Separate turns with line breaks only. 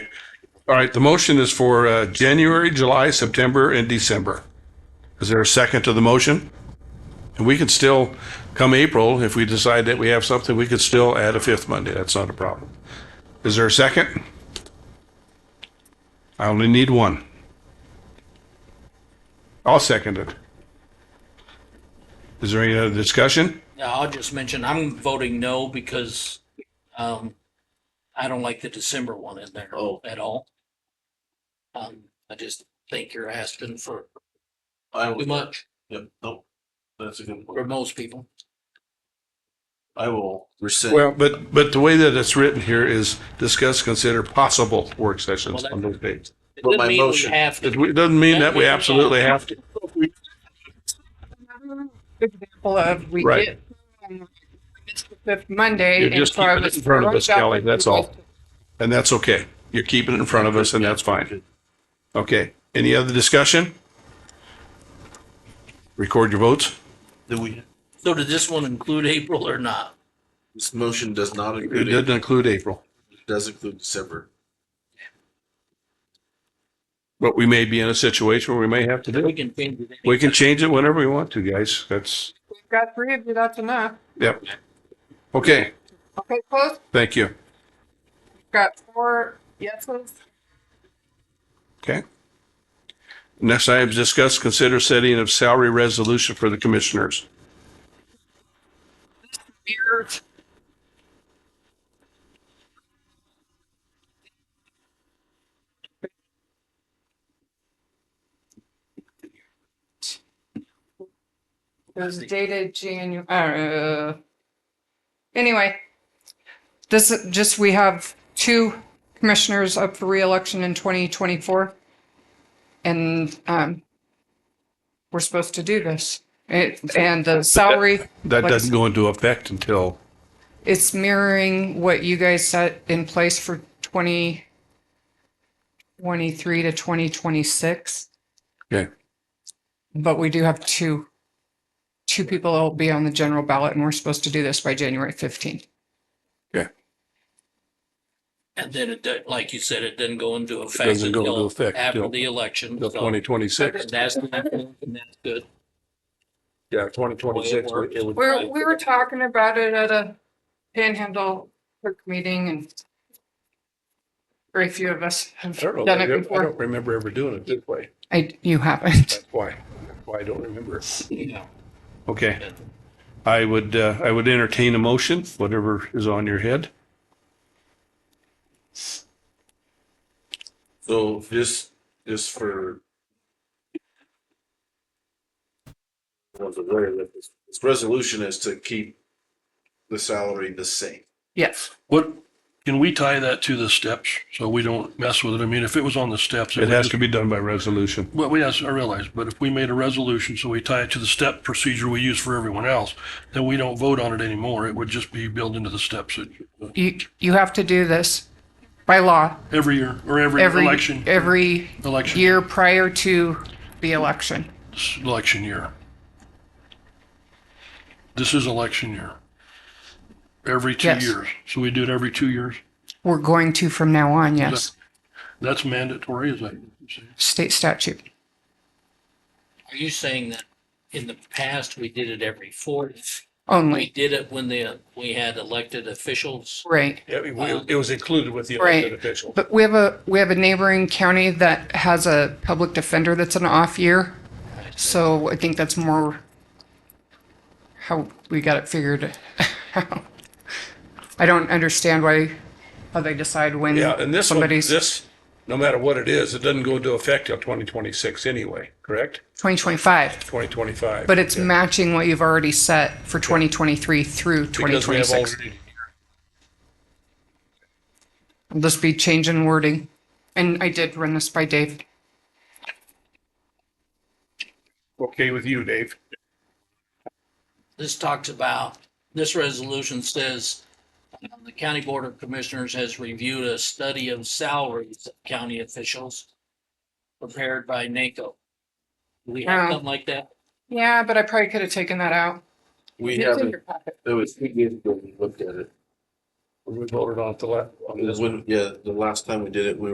All right, the motion is for uh, January, July, September, and December. Is there a second to the motion? And we could still, come April, if we decide that we have something, we could still add a fifth Monday. That's not a problem. Is there a second? I only need one. I'll second it. Is there any other discussion?
Yeah, I'll just mention, I'm voting no because um, I don't like the December one in there
Oh.
at all. Um, I just think you're asking for
I
too
will,
much
yep, nope. That's a good
for
point.
most people.
I will rescind.
Well, but, but the way that it's written here is discuss, consider possible work
Well,
sessions
that-
on those dates.
It
But
doesn't
my
mean we
motion-
Have
It
to.
w- doesn't mean that we absolutely have to.
Example of, we
Right.
get, um, it's the fifth Monday.
You're
and
just
so I
keeping it
was
in front of us,
throwing
Kelly,
out-
that's all. And that's okay. You're keeping it in front of us and that's fine. Okay. Any other discussion? Record your votes.
Do we,
So did this one include April or not?
this motion does not
It
include,
doesn't
it
include April,
does include December.
but we may be in a situation where we may have to do
We
it.
can change it.
We can change it whenever we want to, guys. That's,
We've got three of you, that's enough.
yep. Okay,
Okay, close,
thank you.
we've got four yeses.
Okay. Next item is discuss, consider setting of salary resolution for the commissioners.
Beers. It was dated Janu, uh, anyway. This is just, we have two commissioners up for reelection in twenty twenty-four. And, um, we're supposed to do this. It, and the salary.
That
like I
doesn't go into effect until,
it's mirroring what you guys set in place for 2023 to 2026,
okay,
but we do have two, two people that will be on the general ballot and we're supposed to do this by January 15th.
okay.
And then it, did- like you said, it didn't go into effect.
doesn't go into
until
effect
After
till-
the election.
Until
so-
twenty twenty-six.
And that's, and that's good.
Yeah, twenty twenty-six.
We're, we were talking about it at a panhandle clerk meeting and very few of us have done it before.
remember ever doing it this way.
I, you haven't.
That's why, that's why I don't remember.
Yeah.
Okay. I would, uh, I would entertain a motion, whatever is on your head.
So just, just for. One's aware that this, this resolution is to keep the salary the same.
Yes.
What, can we tie that to the steps so we don't mess with it? I mean, if it was on the steps.
It has to be done by resolution.
Well, yes, I realize, but if we made a resolution, so we tie it to the step procedure we use for everyone else, then we don't vote on it anymore. It would just be built into the steps
You, you have to do this by law.
every year or every
every
election,
every
election,
year prior to the election.
election year. This is election year. Every two
Yes.
years. So we do it every two years.
We're going to from now on, yes.
That's mandatory, is that? what you're saying?
State statute.
Are you saying that in the past, we did it every fourth? We
Only,
did it when the, we had elected officials.
right.
it-
was included with the
Right. elected
official.
But we have a, we have a neighboring county that has a public defender that's an off year. So I think that's more how we got it figured out. I don't understand why, how they decide when
Yeah, and this one,
somebody's
this, no matter what it is, it doesn't go into effect till twenty twenty-six anyway, correct?
2025,
Twenty twenty-five.
but it's matching what you've already set for 2023 through 2026. Will this be change in wording? And I did run this by Dave.
Okay with you, Dave.
This talks about, this resolution says, um, the county board of commissioners has reviewed a study of salaries of county officials prepared by NACO. Do we have
Oh.
something like that?
Yeah, but I probably could have taken that out.
We
It's in your
haven't,
packet.
it was two years ago we looked at it.
We voted on the last.
When, yeah, the last time we did it, we